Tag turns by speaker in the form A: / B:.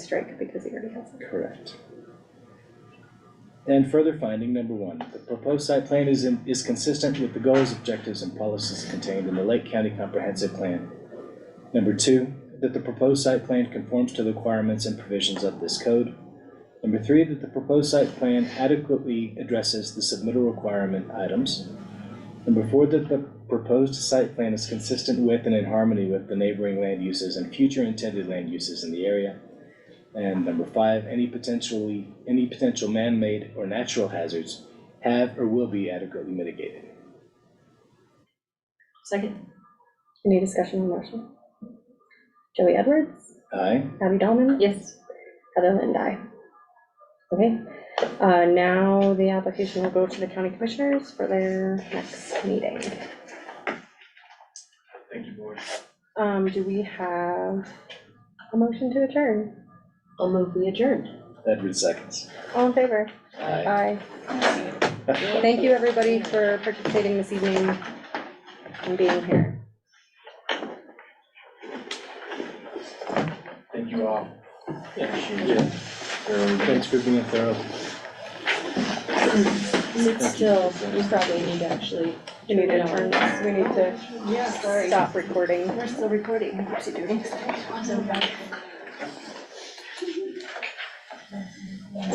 A: strike because he already has it.
B: Correct. And further finding, number one, the proposed site plan is, in- is consistent with the goals, objectives, and policies contained in the Lake County Comprehensive Plan. Number two, that the proposed site plan conforms to the requirements and provisions of this code. Number three, that the proposed site plan adequately addresses the submittal requirement items. Number four, that the proposed site plan is consistent with and in harmony with the neighboring land uses and future intended land uses in the area. And number five, any potentially, any potential man-made or natural hazards have or will be adequately mitigated.
C: Second.
A: Any discussion on the motion? Joey Edwards,
B: Aye,
A: Abby Dahlman,
C: Yes.
A: Heather Lindai. Okay, uh, now the application will go to the county commissioners for their next meeting.
D: Thank you, board.
A: Um, do we have a motion to adjourn?
C: I'll move we adjourn.
B: Edward seconds.
A: All in favor?
B: Aye.
A: Aye. Thank you, everybody, for participating this evening and being here.
D: Thank you all. Appreciate
B: Yeah.
D: it. Very good.
B: Thanks for being thorough.
E: Is it still, we probably need to actually.
A: We need to turn this, we need to
E: Yeah,
A: stop recording.
E: We're still recording.